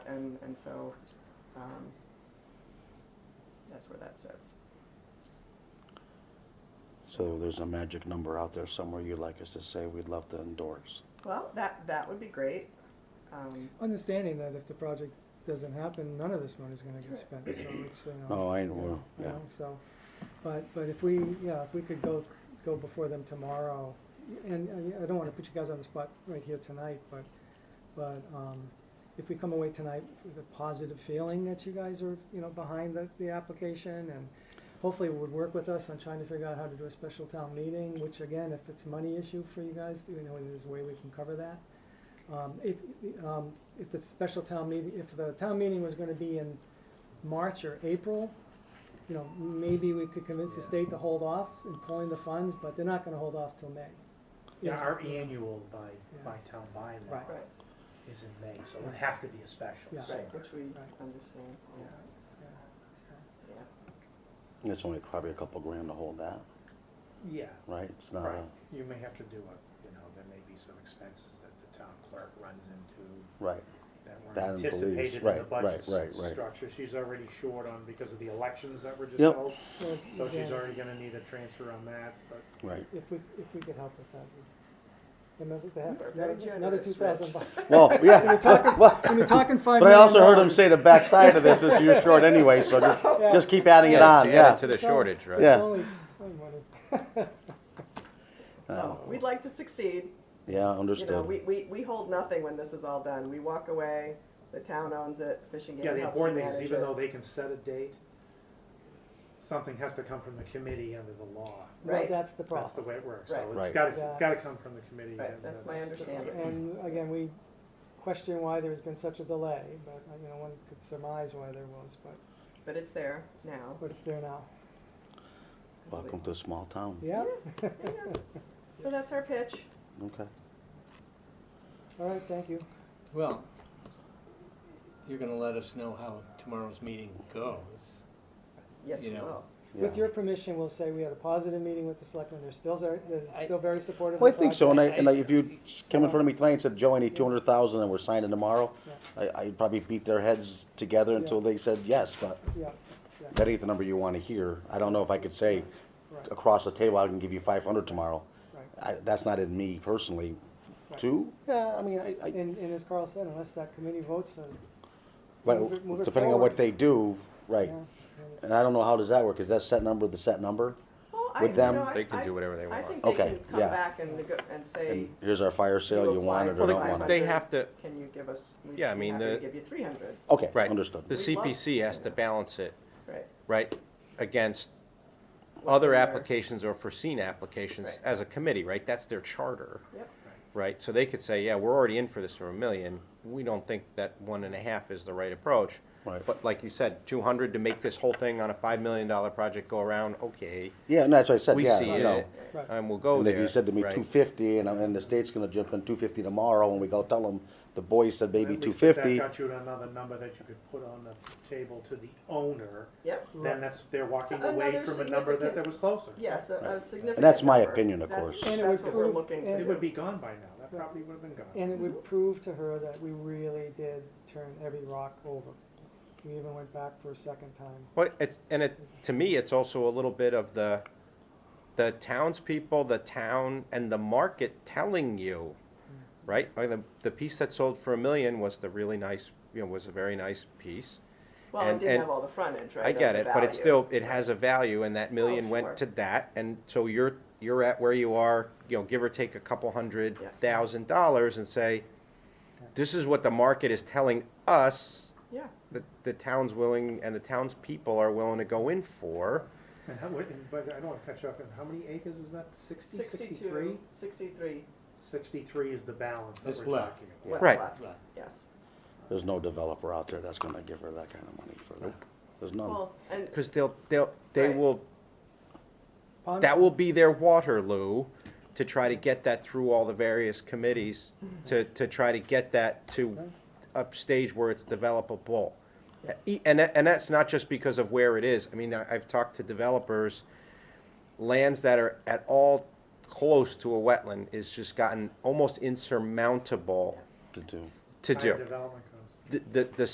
and so, um, that's where that sits. So there's a magic number out there somewhere you'd like us to say we'd love to endorse. Well, that, that would be great. Um, Understanding that if the project doesn't happen, none of this money's gonna get spent, so it's, you know. Oh, I you know, you yeah. know, So, but, but if we, yeah, if we could go, go before them tomorrow, and I- I don't wanna put you guys on the spot right here tonight, but, but, um, if we come away tonight with a positive feeling that you guys are, you know, behind the, the application and hopefully would work with us on trying to figure out how to do a special town meeting, which again, if it's a money issue for you guys, you know, there's a way we can cover that. Um, if, um, if the special town meeting, if the town meeting was gonna be in March or April, you know, maybe we could convince the state to hold off in pulling the funds, but they're not gonna hold off till May. Yeah, our E annual by, by town Right. bylaw Right, is in May, so it would have to be a special. Yeah. so- right, which we Right. understand, Yeah. Yeah, so. yeah. It's only probably a couple grand to hold that, Yeah, right? It's not, right. a- You may have to do a, you know, there may be some expenses that the town clerk runs into right, that That weren't and police, anticipated in the right, right, budget right, right. s- structure. She's already short on, because of the elections that were just Yep. held. Well, So she's yeah, already gonna need a transfer on that, but right. If we, if we could help with that. Remember You are that, very another, another generous, two Rich. thousand bucks. Well, yeah. Well, When you're talking five But I also heard him million say the backside of this is you're short anyway, so just, Yeah. just keep adding it Yeah, on, she yeah. added To the It's all- shortage, right? Yeah. It's only, it's only money. So, we'd like to succeed, Yeah, you know, understood. we, we, we hold nothing when this is all done, we walk away, the town owns it, fishing Yeah, game the helps you important thing is manage even though it. they can set a date, something has to come from the committee under the law. Well, Right. that's the That's the problem. way it works. Right. So it's Right. gotta, it's gotta That's- come from the committee. Right, and that's my understanding. And again, we question why there's been such a delay, but, uh, you know, one could surmise why there was, but, But it's there now. but it's there now. Welcome to a small town. Yeah, So that's our pitch. Okay. all right, thank you. Well, you're gonna let us know how tomorrow's meeting goes. Yes, we You know. will. With yeah. your permission, we'll say we had a positive meeting with the selectmen, they're still, very- they're I- still very supportive of the Well, I think project. so, and I, and I- if you s- come in front of me tonight and said, Joe, I need two hundred thousand and we're signing tomorrow, I, I'd probably beat their heads together until they said yes, but Yeah, that ain't the number you wanna hear. I don't know if I could say right, across the table, I can give you five hundred tomorrow. right. I, that's not in me personally. Right. Two? Yeah, I mean, I, I, And, and as Carl said, unless that committee votes, uh, well, move it- move it depending on what forward. they do, right. yeah, and it's- And I don't know how does that work, is that set number, the set number? Well, I- With you them- know, I- They can I- do whatever they I want. think they Okay, can come yeah. back and nego- and say, And here's our fire sale, You you want apply it or for the five don't want hundred. it? They have to, can you give us, we'd be Yeah, I mean, happy to the- give you three hundred, Okay, Right. the understood. We'd love- CPC has to balance it, right? right, against What's other in there? applications or foreseen applications Right. as a committee, right? That's their charter, Yep, right? So they could say, yeah, we're already in for this for a million. We don't think that one and a half is the right approach. Right. But like you said, two hundred to make this whole thing on a five million dollar project go around, okay, Yeah, and that's what I said, we yeah, see you know. it, Right. and we'll go And there. if you said to me right? two fifty, and, and the state's gonna jump in two fifty tomorrow, and we go tell them, the boys said maybe At two least if fifty, That got you another number that you could put on the table to the owner, yep, Right. then that's, they're walking So away another from a number that significant- that was closer. yes, a- a significant. and that's my number. opinion, of That's- course. And it That's would what we're prove- looking and to It would do. be gone by now, that probably would have been gone. And it would prove to her that we really did turn every rock over. We even went back for a second time. Well, it's, and it, to me, it's also a little bit of the, the townspeople, the town, and the market telling Mm. you, right? Like the, the piece that sold for a million was the really nice, you know, was a very nice piece. Well, it and- didn't and- have all the frontage, right? I of get the it, but it's value. Oh, still, it has a value, and that million sure. went to that, and so you're, you're at where you are, you know, give or take a couple hundred Yeah. thousand dollars and say, this is what the market is telling us Yeah, that the town's willing, and the townspeople are willing to go in for. And how, would- and- but I don't want to cut you off, and how many acres is that, sixty, sixty-three? sixty-two, sixty-three, Sixty-three is the balance that It's we're left. talking about. what's Right. left, yes. There's no developer out there that's gonna give her that kind of money for that. There's none. Well, and, Because they'll, they'll, they Right. will, Pond- that will be their Waterloo to try to get that through all the various committees, to, to try to get that to a stage where it's developable. E- And, that- and that's not just because of where it is. I mean, I- I've talked to developers, lands that are at all close to a wetland is just gotten almost insurmountable To do. to High do. Development costs. The, the, the